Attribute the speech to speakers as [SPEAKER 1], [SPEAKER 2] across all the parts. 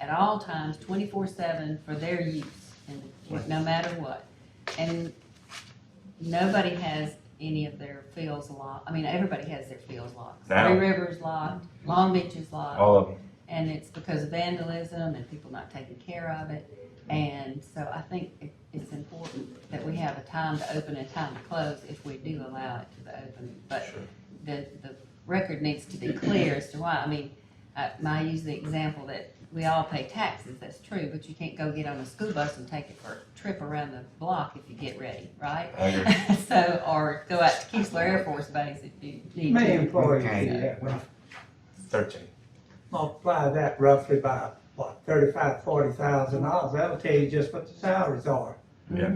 [SPEAKER 1] at all times, twenty-four seven for their use, and no matter what. And nobody has any of their fields locked, I mean, everybody has their fields locked.
[SPEAKER 2] Now.
[SPEAKER 1] Three Rivers locked, Long Beach is locked.
[SPEAKER 2] all of them.
[SPEAKER 1] and it's because of vandalism and people not taking care of it. And so I think it, it's important that we have a time to open and time to close if we do allow it to the open. But
[SPEAKER 2] Sure.
[SPEAKER 1] the, the record needs to be clear as to why. I mean, I, I use the example that we all pay taxes, that's true, but you can't go get on a school bus and take it for a trip around the block if you get ready, right?
[SPEAKER 2] I agree.
[SPEAKER 1] So, or go out to Keesler Air Force Base if you need
[SPEAKER 3] Many
[SPEAKER 1] to.
[SPEAKER 3] employees do
[SPEAKER 4] Okay.
[SPEAKER 3] that, when I
[SPEAKER 2] Thirteen.
[SPEAKER 3] multiply that roughly by, what, thirty-five, forty thousand dollars, that'll tell you just what the salaries are.
[SPEAKER 2] Yeah.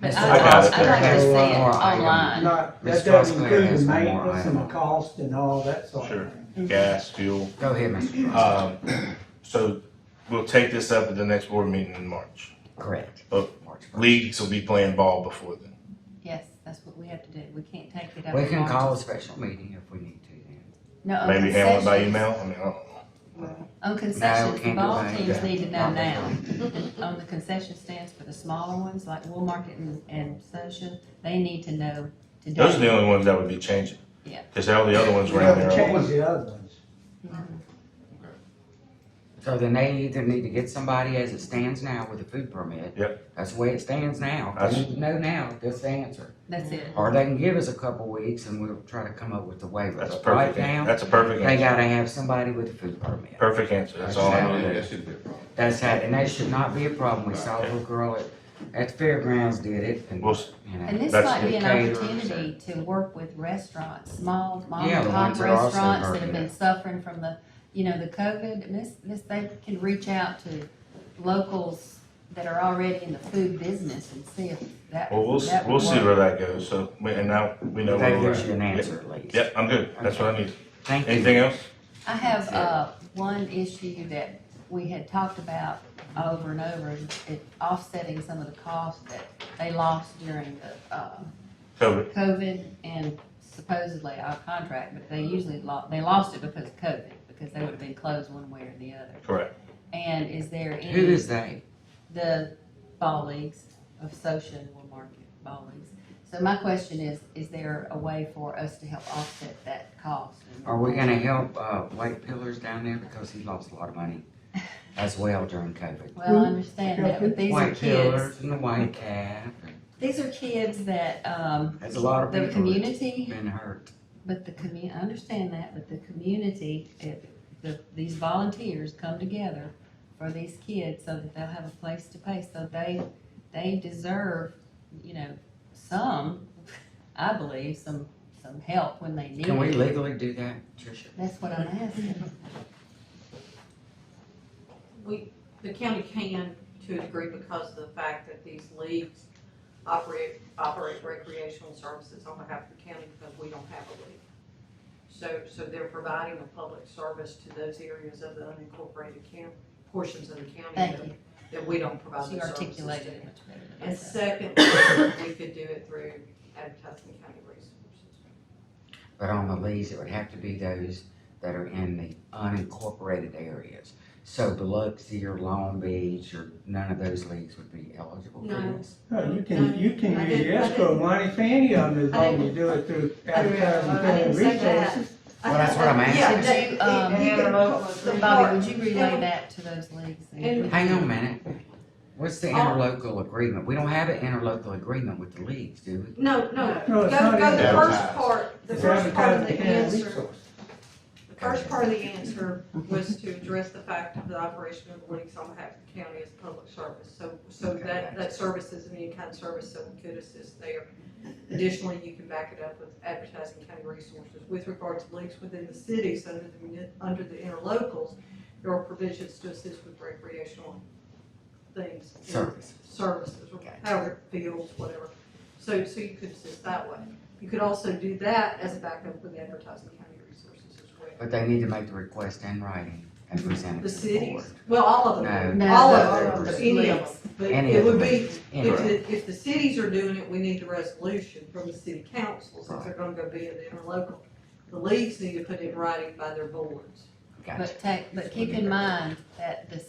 [SPEAKER 1] But
[SPEAKER 2] I
[SPEAKER 1] I, I
[SPEAKER 2] got
[SPEAKER 1] like
[SPEAKER 2] it.
[SPEAKER 1] to see it
[SPEAKER 4] Okay, one more item.
[SPEAKER 1] online.
[SPEAKER 3] Not,
[SPEAKER 4] Ms.
[SPEAKER 3] that doesn't
[SPEAKER 4] Foskler
[SPEAKER 3] include
[SPEAKER 4] has
[SPEAKER 3] the
[SPEAKER 4] one more
[SPEAKER 3] maintenance and the
[SPEAKER 4] item.
[SPEAKER 3] cost and all that sort
[SPEAKER 2] Sure.
[SPEAKER 3] of thing.
[SPEAKER 4] Mm-hmm.
[SPEAKER 2] Gas, fuel.
[SPEAKER 4] Go ahead, Mr. Price.
[SPEAKER 2] Um, so we'll take this up at the next board meeting in March.
[SPEAKER 4] Correct.
[SPEAKER 2] oh,
[SPEAKER 4] March first.
[SPEAKER 2] Leagues will be playing ball before then.
[SPEAKER 1] Yes, that's what we have to do. We can't take it up.
[SPEAKER 4] We can
[SPEAKER 1] March.
[SPEAKER 4] call a special meeting if we need to then.
[SPEAKER 1] No,
[SPEAKER 4] Uh,
[SPEAKER 1] on
[SPEAKER 2] Maybe handle it by
[SPEAKER 1] concessions-
[SPEAKER 2] email. I mean, I don't know.
[SPEAKER 1] On
[SPEAKER 4] we
[SPEAKER 1] concessions, the
[SPEAKER 4] can't
[SPEAKER 1] ball
[SPEAKER 4] do that.
[SPEAKER 1] teams
[SPEAKER 4] Yeah.
[SPEAKER 1] need to know now.
[SPEAKER 4] Probably.
[SPEAKER 1] On the concession stands for the smaller ones, like Woolmarket and, and Social, they need to know today.
[SPEAKER 2] Those are the only ones that would be changing.
[SPEAKER 1] Yeah.
[SPEAKER 2] Cause all the other ones
[SPEAKER 3] You
[SPEAKER 2] around there.
[SPEAKER 3] have to
[SPEAKER 2] are-
[SPEAKER 3] change the other ones.
[SPEAKER 4] So then they either need to get somebody as it stands now with a food permit.
[SPEAKER 2] Yep.
[SPEAKER 4] That's the way it stands now. They
[SPEAKER 2] That's-
[SPEAKER 4] need to know now, that's the answer.
[SPEAKER 1] That's it.
[SPEAKER 4] Or they can give us a couple weeks and we'll try to come up with a waiver.
[SPEAKER 2] That's a
[SPEAKER 4] But right
[SPEAKER 2] perfect, an-
[SPEAKER 4] now,
[SPEAKER 2] that's a perfect
[SPEAKER 4] they
[SPEAKER 2] answer.
[SPEAKER 4] gotta have somebody with a food permit.
[SPEAKER 2] Perfect answer. That's all I
[SPEAKER 4] Exactly.
[SPEAKER 2] need.
[SPEAKER 5] Yeah, that shouldn't be a problem.
[SPEAKER 4] That's how, and that should not be a problem. We saw a little girl at, at the fairgrounds did it and,
[SPEAKER 2] We'll,
[SPEAKER 4] you
[SPEAKER 2] s-
[SPEAKER 1] And
[SPEAKER 4] know.
[SPEAKER 1] this
[SPEAKER 2] That's
[SPEAKER 1] might be an
[SPEAKER 4] caterers
[SPEAKER 1] opportunity to work with restaurants, small mom
[SPEAKER 4] Yeah,
[SPEAKER 1] and
[SPEAKER 4] the
[SPEAKER 1] pop
[SPEAKER 4] ones that are also
[SPEAKER 1] restaurants that have
[SPEAKER 4] hurting.
[SPEAKER 1] been suffering from the, you know, the COVID. And this, this, they can reach out to locals that are already in the food business and see if that.
[SPEAKER 2] well, we'll, s-
[SPEAKER 1] that would
[SPEAKER 2] we'll see
[SPEAKER 1] work.
[SPEAKER 2] where that goes. So, we- and now we know where
[SPEAKER 4] That
[SPEAKER 2] we're
[SPEAKER 4] gives you an
[SPEAKER 2] at. Yep.
[SPEAKER 4] answer at least.
[SPEAKER 2] Yep, I'm good. That's what I need.
[SPEAKER 4] Thank you.
[SPEAKER 2] Anything else?
[SPEAKER 1] I have,
[SPEAKER 4] Yeah.
[SPEAKER 1] uh, one issue that we had talked about over and over, is it offsetting some of the costs that they lost during the, uh,
[SPEAKER 2] Covered.
[SPEAKER 1] COVID and supposedly our contract, but they usually lo, they lost it because of COVID, because they would have been closed one way or the other.
[SPEAKER 2] Correct.
[SPEAKER 1] And is there any?
[SPEAKER 4] Who is they?
[SPEAKER 1] the ball leagues of social and will market ball leagues. So my question is, is there a way for us to help offset that cost?
[SPEAKER 4] Are we gonna help, uh, White Pillars down there because he lost a lot of money as well during COVID?
[SPEAKER 1] Well, I understand that, but these are
[SPEAKER 4] White
[SPEAKER 1] kids,
[SPEAKER 4] Pillars and the White Calf, and
[SPEAKER 1] these are kids that, um,
[SPEAKER 4] there's a lot of
[SPEAKER 1] the
[SPEAKER 4] people that's
[SPEAKER 1] community,
[SPEAKER 4] been hurt.
[SPEAKER 1] but the commu, I understand that, but the community, if, the, these volunteers come together for these kids so that they'll have a place to pay, so they, they deserve, you know, some, I believe, some, some help when they need it.
[SPEAKER 4] Can we legally do that, Tricia?
[SPEAKER 1] That's what I'm asking.
[SPEAKER 6] The county can to a degree because of the fact that these leagues operate, operate recreational services on behalf of the county because we don't have a league. So, so they're providing a public service to those areas of the unincorporated county, portions of the county
[SPEAKER 1] Thank
[SPEAKER 6] that-
[SPEAKER 1] you.
[SPEAKER 6] that we don't provide
[SPEAKER 1] She
[SPEAKER 6] the services to.
[SPEAKER 1] articulated it much better than I
[SPEAKER 6] And
[SPEAKER 1] said.
[SPEAKER 6] second, we could do it through advertising county resources.
[SPEAKER 4] But on the leaves, it would have to be those that are in the unincorporated areas. So Biloxi or Long Beach or none of those leagues would be eligible for
[SPEAKER 6] No.
[SPEAKER 4] this.
[SPEAKER 3] No, you can, you can
[SPEAKER 6] I
[SPEAKER 3] use
[SPEAKER 6] didn't-
[SPEAKER 3] the
[SPEAKER 6] I
[SPEAKER 3] escrow
[SPEAKER 6] didn't-
[SPEAKER 3] money for any of them as
[SPEAKER 6] I
[SPEAKER 3] long as you
[SPEAKER 6] didn't-
[SPEAKER 3] do it through
[SPEAKER 6] I didn't-
[SPEAKER 3] advertising
[SPEAKER 6] I didn't
[SPEAKER 3] and
[SPEAKER 6] say that.
[SPEAKER 3] resources.
[SPEAKER 4] Well, that's what I'm asking.
[SPEAKER 1] Could you, um,
[SPEAKER 6] um,
[SPEAKER 1] Bobby, would you relay that to those leagues? and-
[SPEAKER 4] Hang on a minute. What's
[SPEAKER 6] Oh.
[SPEAKER 4] the interlocal agreement? We don't have an interlocal agreement with the leagues, do we?
[SPEAKER 6] No, no,
[SPEAKER 3] No,
[SPEAKER 6] go,
[SPEAKER 3] it's not
[SPEAKER 6] go the first
[SPEAKER 5] advertised.
[SPEAKER 6] part, the
[SPEAKER 3] It's
[SPEAKER 6] first part of
[SPEAKER 3] advertising
[SPEAKER 6] the
[SPEAKER 3] and
[SPEAKER 6] answer,
[SPEAKER 3] resources.
[SPEAKER 6] the first part of the answer was to address the fact of the operation of the leagues on behalf of the county as public service. So, so
[SPEAKER 4] Okay,
[SPEAKER 6] that,
[SPEAKER 4] gotcha.
[SPEAKER 6] that service is an in-kind service, so we could assist there. Additionally, you can back it up with advertising county resources. With regard to leagues within the cities, under the, muni- under the interlocals, there are provisions to assist with recreational things.
[SPEAKER 4] Service.
[SPEAKER 6] services, or
[SPEAKER 4] Gotcha.
[SPEAKER 6] however it feels, whatever. So, so you could assist that way. You could also do that as a backup with advertising county resources as well.
[SPEAKER 4] But they need to make the request in writing and present
[SPEAKER 6] The
[SPEAKER 4] it to the board.
[SPEAKER 6] cities, well, all of them,
[SPEAKER 4] No.
[SPEAKER 1] No.
[SPEAKER 6] all
[SPEAKER 4] No.
[SPEAKER 6] of them, any of them. But
[SPEAKER 4] Any
[SPEAKER 6] it
[SPEAKER 4] of
[SPEAKER 6] would
[SPEAKER 4] them.
[SPEAKER 6] be, if,
[SPEAKER 4] Anyway,
[SPEAKER 6] the- if the cities are doing it, we need the resolution from the city council, since they're gonna go be in the interlocal. The leagues need to put it in writing by their boards.
[SPEAKER 4] gotcha.
[SPEAKER 1] But take, but keep in mind that the